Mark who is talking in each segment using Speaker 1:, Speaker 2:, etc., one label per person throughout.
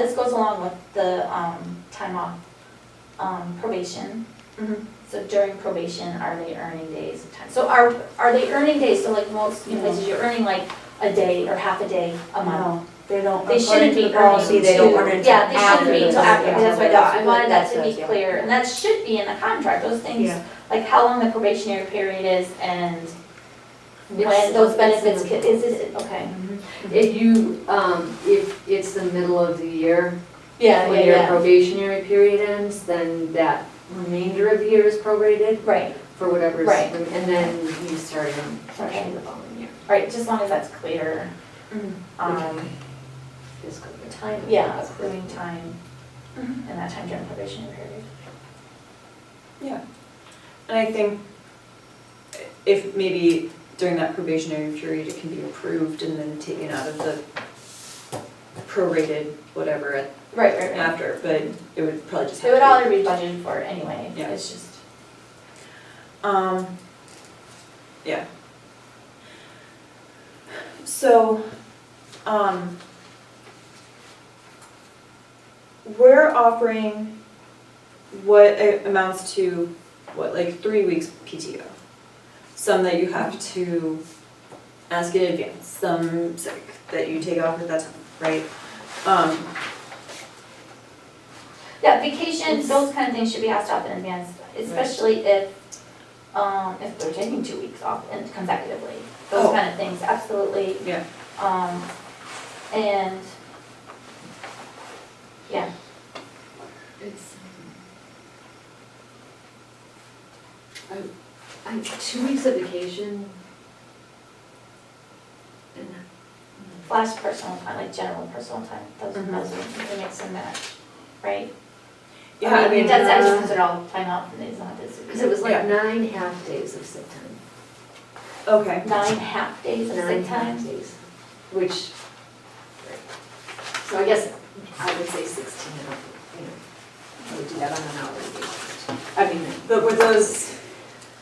Speaker 1: goes along with the, um, time off, um, probation.
Speaker 2: Mhm.
Speaker 1: So during probation, are they earning days of time? So are, are they earning days, so like most
Speaker 2: No.
Speaker 1: places, you're earning like a day or half a day a month?
Speaker 2: No, they don't,
Speaker 1: They
Speaker 2: according
Speaker 1: shouldn't
Speaker 2: to
Speaker 1: be
Speaker 2: the policy,
Speaker 1: earning
Speaker 2: they don't
Speaker 1: two-
Speaker 2: earn until
Speaker 1: Yeah,
Speaker 2: after.
Speaker 1: they shouldn't be until
Speaker 2: the-
Speaker 1: after, that's my thought, I wanted that to be
Speaker 2: That's what it
Speaker 1: clear, and that should be in the contract, those things,
Speaker 2: Yeah.
Speaker 1: like how long the probationary period is and
Speaker 3: It's-
Speaker 1: when those
Speaker 3: it's in
Speaker 1: benefits,
Speaker 3: the-
Speaker 1: ca- is it, okay.
Speaker 3: If you, um, if it's the middle of the year,
Speaker 1: Yeah,
Speaker 3: when your probationary period ends, then that remainder of the year is prorated
Speaker 1: Right,
Speaker 3: for whatever's.
Speaker 1: Right.
Speaker 3: And then you start in fresh in the following year,
Speaker 1: all right, just as long as that's clear.
Speaker 2: Mhm.
Speaker 1: Um,
Speaker 3: fiscal year.
Speaker 1: time, yeah, accruing time, and that time during probationary period.
Speaker 2: And I think if maybe during that probationary period, it can be approved and then taken out of the prorated whatever at-
Speaker 1: Right, right, right.
Speaker 2: after, but it would probably just
Speaker 1: It
Speaker 2: have
Speaker 1: would
Speaker 2: to be.
Speaker 1: already be budgeted for anyway,
Speaker 2: Yeah.
Speaker 1: it's just,
Speaker 2: Um, yeah. So, um, we're offering what a- amounts to, what, like three weeks PTO? Some that you have to ask in advance, some sick that you take off at that time, right? Um,
Speaker 1: yeah, vacation, those kind of things should be asked off in advance, especially if, um, if they're taking two weeks off and consecutively. Those
Speaker 2: Oh.
Speaker 1: kind of things, absolutely.
Speaker 2: Yeah.
Speaker 1: Um, and, yeah,
Speaker 3: It's, um, I, I, two weeks of vacation. And
Speaker 1: flash personal time, like general personal time, those,
Speaker 2: Mhm.
Speaker 1: those are the mix and match, right?
Speaker 2: yeah, I mean,
Speaker 1: That's
Speaker 3: uh,
Speaker 1: actually considered all time off and it's not this.
Speaker 3: Because it was like
Speaker 2: Yeah.
Speaker 3: nine half days of sick time.
Speaker 2: okay,
Speaker 1: Nine half days of
Speaker 3: Nine
Speaker 1: sick
Speaker 3: half
Speaker 1: time.
Speaker 3: days, which, so I guess I would say sixteen, and up, you know, I would do that on an hourly basis. I mean,
Speaker 2: but were those,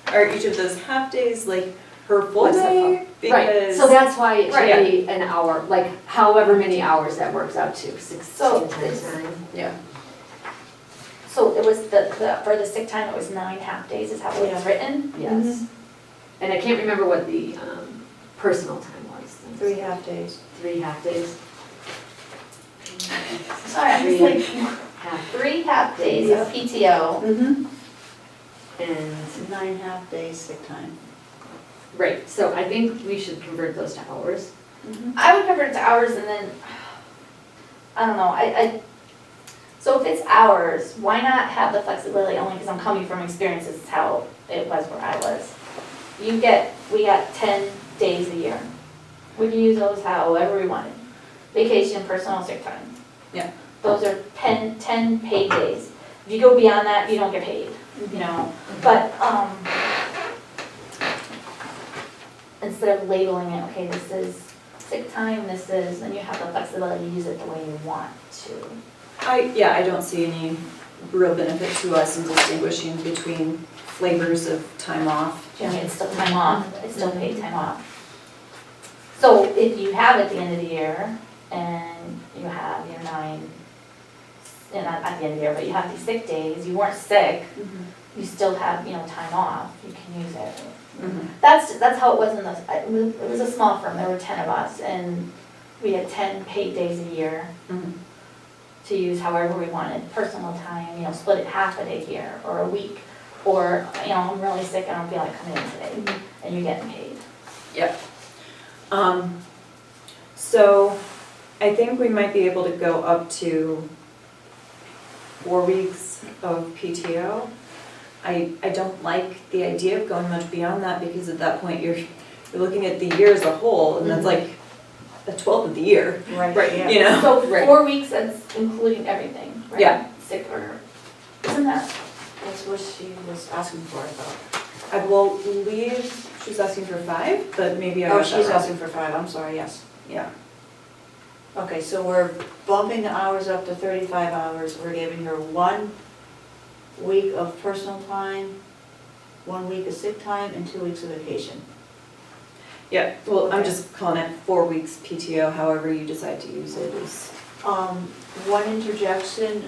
Speaker 2: are each of those half days like her full
Speaker 3: What's that
Speaker 2: day?
Speaker 3: right,
Speaker 2: Because-
Speaker 3: so that's why it
Speaker 2: Right.
Speaker 3: should be an hour, like however many hours that works out to,
Speaker 1: So
Speaker 3: sixteen times
Speaker 1: it's-
Speaker 3: nine.
Speaker 1: So it was the, the, for the sick time, it was nine half days is how it was
Speaker 2: Yeah.
Speaker 1: written?
Speaker 3: Yes.
Speaker 2: Mm-hmm.
Speaker 3: And I can't remember what the um, personal time was.
Speaker 2: Three half days.
Speaker 3: Three half days.
Speaker 1: Sorry, I'm just
Speaker 3: Three.
Speaker 1: like,
Speaker 3: Half,
Speaker 1: three half days of PTO.
Speaker 2: Mm-hmm.
Speaker 3: and,
Speaker 4: Nine half days sick time.
Speaker 3: right, so I think we should convert those to hours.
Speaker 1: I would convert it to hours and then, I don't know, I, I, so if it's hours, why not have the flexibility, only because I'm coming from experience, this is how it was where I was. You get, we got ten days a year. We can use those however we wanted. Vacation, personal, sick time.
Speaker 2: Yeah.
Speaker 1: Those are ten, ten paid days. If you go beyond that, you don't get paid, you know, but, um, instead of labeling it, okay, this is sick time, this is, and you have the flexibility to use it the way you want to.
Speaker 2: I, yeah, I don't see any real benefit to us in distinguishing between flavors of time off.
Speaker 1: Do you know, it's still time off, it's still paid time off. So if you have at the end of the year and you have your nine, you know, not at the end of the year, but you have these sick days, you weren't sick,
Speaker 3: Mm-hmm.
Speaker 1: you still have, you know, time off, you can use it.
Speaker 2: Mm-hmm.
Speaker 1: That's, that's how it was in the, it was- it was a small firm, there were ten of us, and we had ten paid days a year
Speaker 2: Mhm.
Speaker 1: to use however we wanted, personal time, you know, split it half a day here, or a week, or, you know, I'm really sick, I don't feel like coming in today, and you're getting paid.
Speaker 2: Um, so I think we might be able to go up to four weeks of PTO. I, I don't like the idea of going much beyond that because at that point you're, you're looking at the year as a whole and that's
Speaker 4: Mm-hmm.
Speaker 2: like a twelfth of the year, right, you know?
Speaker 1: So
Speaker 3: Right.
Speaker 1: four weeks, that's including everything, right?
Speaker 2: Yeah.
Speaker 1: Sick or, isn't that,
Speaker 4: That's what she was asking for, I thought.
Speaker 2: I will leave, she's asking for five, but maybe I got
Speaker 4: Oh,
Speaker 2: that
Speaker 4: she's
Speaker 2: wrong.
Speaker 4: asking for five, I'm sorry, yes.
Speaker 2: Yeah.
Speaker 4: Okay, so we're bumping the hours up to thirty-five hours, we're giving her one week of personal time, one week of sick time, and two weeks of vacation.
Speaker 2: Yeah, well, I'm
Speaker 4: Okay.
Speaker 2: just calling it four weeks PTO, however you decide to use it is Um, one interjection,